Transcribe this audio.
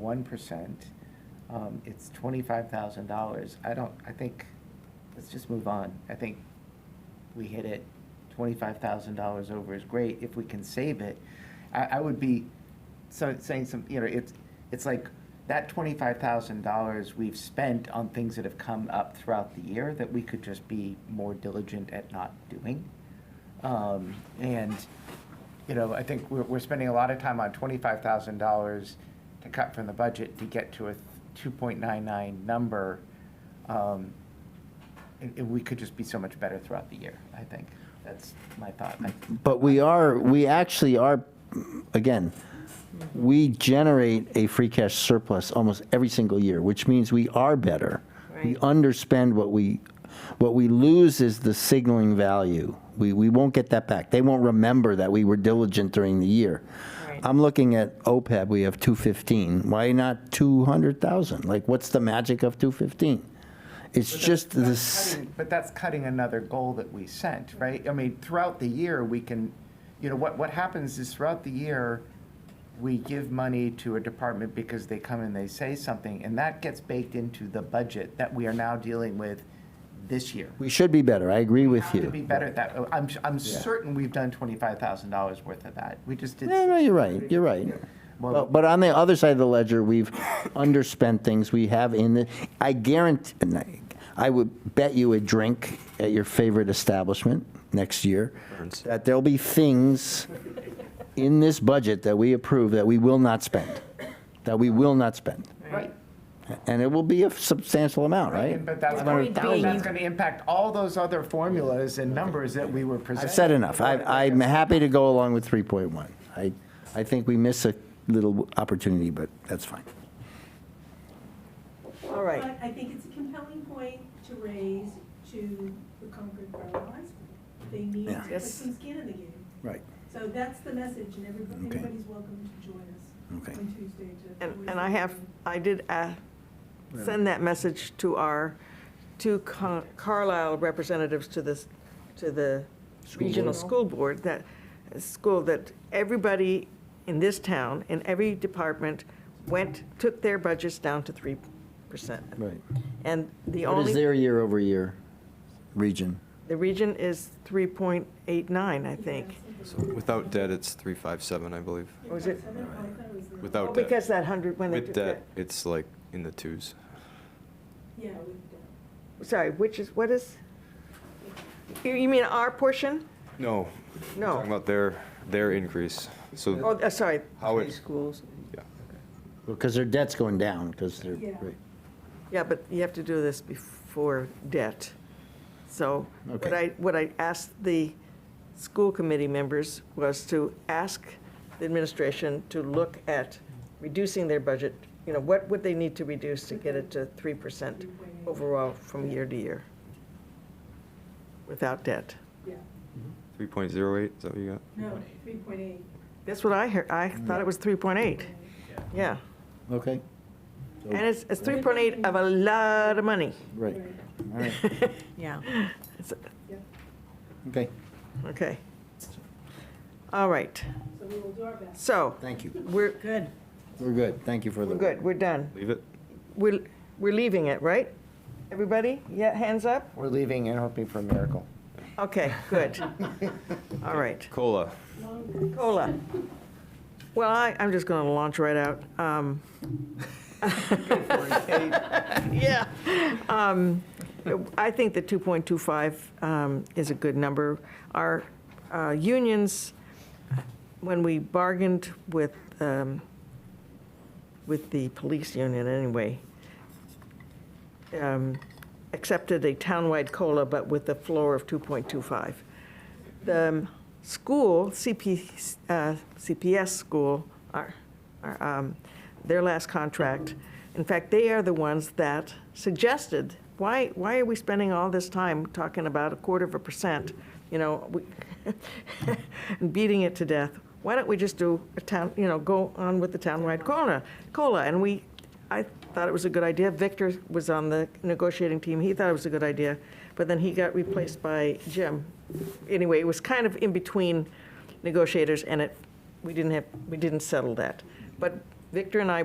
3.1%. Um, It's $25,000. I don't, I think, let's just move on. I think we hit it. $25,000 over is great if we can save it. I, I would be so saying some, you know, it's, it's like that $25,000 we've spent on things that have come up throughout the year that we could just be more diligent at not doing. Um, And, you know, I think we're, we're spending a lot of time on twenty-five thousand dollars to cut from the budget to get to a two point nine nine number. Um, And, and we could just be so much better throughout the year, I think. That's my thought. I- But we are, we actually are, again, we generate a free cash surplus almost every single year, which means we are better. We Right. underspend what we, what we lose is the signaling value. We, we won't get that back. They won't remember that we were diligent during the year. Right. I'm looking at OPEB, we have 215. Why not 200,000? Like, what's the magic of 215? It's just this, cutting- But that's cutting another goal that we sent, right? I mean, throughout the year, we can, you know, what, what happens is throughout the year, we give money to a department because they come and they say something, and that gets baked into the budget that we are now dealing with this year. we should be better. I agree with Have you. to be better at that. Oh, I'm, I'm certain we've done twenty-five thousand dollars worth of that. We just did. No, no, you're right, you're right. Well- But, but on the other side of the ledger, we've underspent things we have in the, I guarantee, I would bet you a drink at your favorite establishment next year, Burns. that there'll be things in this budget that we approve that we will not spend, that we will not spend. Right. And it will be a substantial amount, right? But that's, Or going- it that's being- gonna impact all those other formulas and numbers that we were presenting. I've said enough. I, I'm happy to go along with 3.1. I, I think we miss a little opportunity, but that's fine. All right, But I think it's a compelling point to raise to the Concord Borough High School. They need to Yeah. put Yes. some skin in the game. Right. So that's the message, and everybody, Okay. everybody's welcome to join us Okay. on Tuesday to. and, and I have, I did uh, send that message to our two Car- Carlisle representatives to this, to the regional school board, that, uh, school, that everybody in this town, in every department, went, took their budgets down to 3%. Right. And the What only. is their year over year region? The region is 3.89, I think. So without debt, it's 357, I believe. Was Oh, it- Without Oh, debt. Because that 100, when they With took that. debt, it's like in the twos. Yeah, with that. Sorry, which is, what is? You you mean our portion? No. No. Talking about their, their increase. Oh, So, uh, sorry. How it- Schools. yeah. Because their debt's going down, because they're, Yeah. right. Yeah, but you have to do this before debt. So what Okay. I, what I asked the school committee members was to ask the administration to look at reducing their budget. You know, what would they need to reduce to get it to 3% overall from year to year without debt? Yeah, 3.08, is that what you got? no, three point eight. That's what I heard. I thought it was 3.8. Yeah. okay, And it's, it's 3.8 of a lot of money. right, all right, Yeah. Yeah, okay, Okay. All right. so we will do our best. So thank you. we're. Good. We're good, thank you for the. We're good. We're done. Leave it? We're, we're leaving it, right? Everybody? Yeah, hands up? We're leaving and hoping for a miracle. Okay, good. All right. Cola. Cola. Well, I, I'm just going to launch right out. Um, Yeah. Um, I think the 2.25 um, is a good number. Our uh, unions, when we bargained with, um, with the police union anyway, um, accepted a townwide COLA, but with a floor of 2.25. The um, school, CP, uh, CPS school, our, our, um, their last contract, in fact, they are the ones that suggested, why, why are we spending all this time talking about a quarter of a percent, you know, we- and beating it to death? Why don't we just do a town, you know, go on with the townwide COLA, COLA? And we, I thought it was a good idea. Victor was on the negotiating team. He thought it was a good idea, but then he got replaced by Jim. Anyway, it was kind of in between negotiators, and it, we didn't have, we didn't settle that. But Victor and I